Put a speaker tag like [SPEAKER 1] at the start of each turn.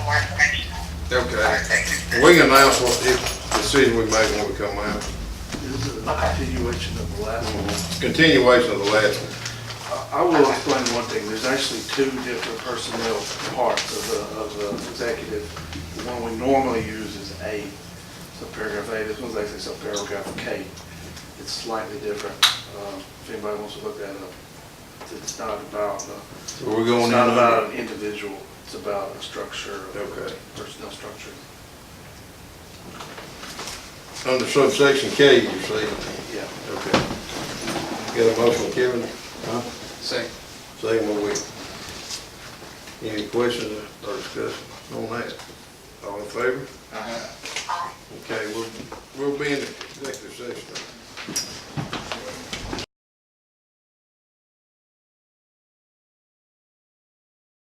[SPEAKER 1] Okay.
[SPEAKER 2] Thank you.
[SPEAKER 1] We can announce what the decision we make when we come out.
[SPEAKER 3] This is a continuation of the last one.
[SPEAKER 1] Continuation of the last one.
[SPEAKER 3] Mhm. I- I will explain one thing, there's actually two different personnel parts of the, of the executive. The one we normally use is A, subparagraph A, this one's actually subparagraph K. It's slightly different, Um, if anybody wants to look that up. It's not about, uh,
[SPEAKER 1] So we're going in.
[SPEAKER 3] it's not
[SPEAKER 1] under-
[SPEAKER 3] about an individual, it's about a structure,
[SPEAKER 1] Okay.
[SPEAKER 3] personnel structure.
[SPEAKER 1] Under subsection K, you see.
[SPEAKER 3] Yeah,
[SPEAKER 1] Okay. Got a motion, Kevin? Huh?
[SPEAKER 4] Second.
[SPEAKER 1] Second by William. Any questions or discussion on that? All in favor?
[SPEAKER 4] Uh-huh.
[SPEAKER 1] Okay, we'll, we'll be in the executive session.